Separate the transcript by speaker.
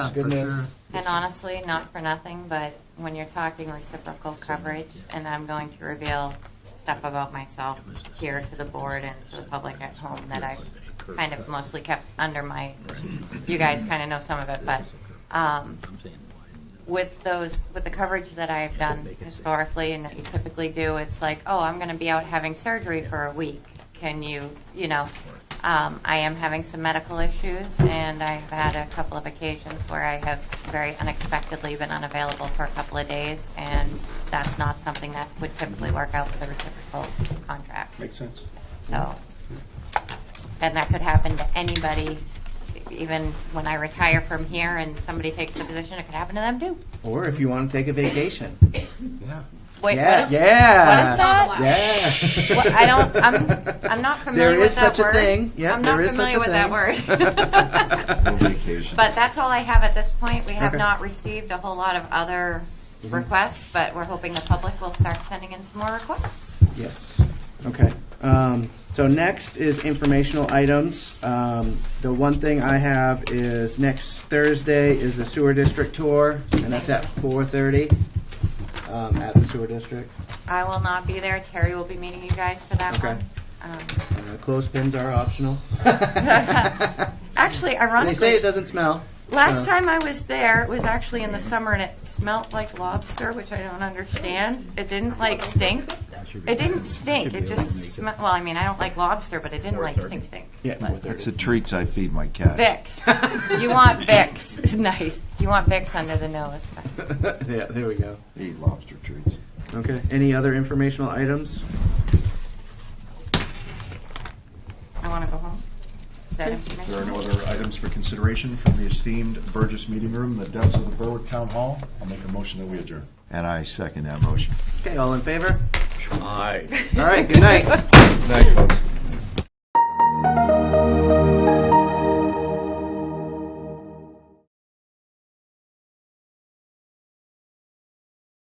Speaker 1: goodness.
Speaker 2: And honestly, not for nothing, but when you're talking reciprocal coverage, and I'm going to reveal stuff about myself here to the board and to the public at home that I've kind of mostly kept under my, you guys kind of know some of it, but um, with those, with the coverage that I've done historically and that you typically do, it's like, oh, I'm going to be out having surgery for a week. Can you, you know, um, I am having some medical issues and I've had a couple of occasions where I have very unexpectedly been unavailable for a couple of days and that's not something that would typically work out with a reciprocal contract.
Speaker 1: Makes sense.
Speaker 2: So, and that could happen to anybody, even when I retire from here and somebody takes the position, it could happen to them too.
Speaker 3: Or if you want to take a vacation.
Speaker 2: Wait,
Speaker 3: yeah.
Speaker 2: what is,
Speaker 3: yeah.
Speaker 2: what is that?
Speaker 3: Yeah.
Speaker 2: Well, I don't- I'm- I'm not familiar
Speaker 3: There
Speaker 2: with
Speaker 3: is
Speaker 2: that
Speaker 3: such a
Speaker 2: word.
Speaker 3: thing. Yeah,
Speaker 2: I'm not
Speaker 3: there is such
Speaker 2: familiar
Speaker 3: a
Speaker 2: with
Speaker 3: thing.
Speaker 2: that word.
Speaker 4: vacation.
Speaker 2: But that's all I have at this point. We have
Speaker 3: Okay. Mm-hmm.
Speaker 2: not received a whole lot of other requests, but we're hoping the public will start sending in some more requests.
Speaker 3: Yes. Okay. Um, so next is informational items. Um, the one thing I have is next Thursday is the sewer district tour, and that's at 4:30 um, at the sewer district.
Speaker 2: I will not be there. Terry will be meeting you guys for that
Speaker 3: Okay.
Speaker 2: one. Um,
Speaker 3: Uh, clothespins are optional.
Speaker 2: Actually,
Speaker 3: they say it
Speaker 2: ironically,
Speaker 3: doesn't smell.
Speaker 2: last
Speaker 3: so-
Speaker 2: time I was there, it was actually in the summer and it smelt like lobster, which I don't understand. It didn't like stink. It didn't stink. It just smelled, well, I mean, I don't like lobster, but it didn't like stink stink.
Speaker 3: Yeah.
Speaker 4: That's the treats I feed my cat.
Speaker 2: Vicks. You want Vicks. Nice. You want Vicks under the nose.
Speaker 3: yeah. There we go.
Speaker 4: I eat lobster treats.
Speaker 3: Okay. Any other informational items?
Speaker 2: I want to go home. Is that
Speaker 5: There are
Speaker 2: information?
Speaker 5: no other items for consideration from the esteemed Burgess Meeting Room, in the depths of the Berwick Town Hall. I'll make a motion that we adjourn.
Speaker 4: And I second that motion.
Speaker 3: Okay. All in favor?
Speaker 6: Aye.
Speaker 3: All right. Good night.
Speaker 4: Good night, folks.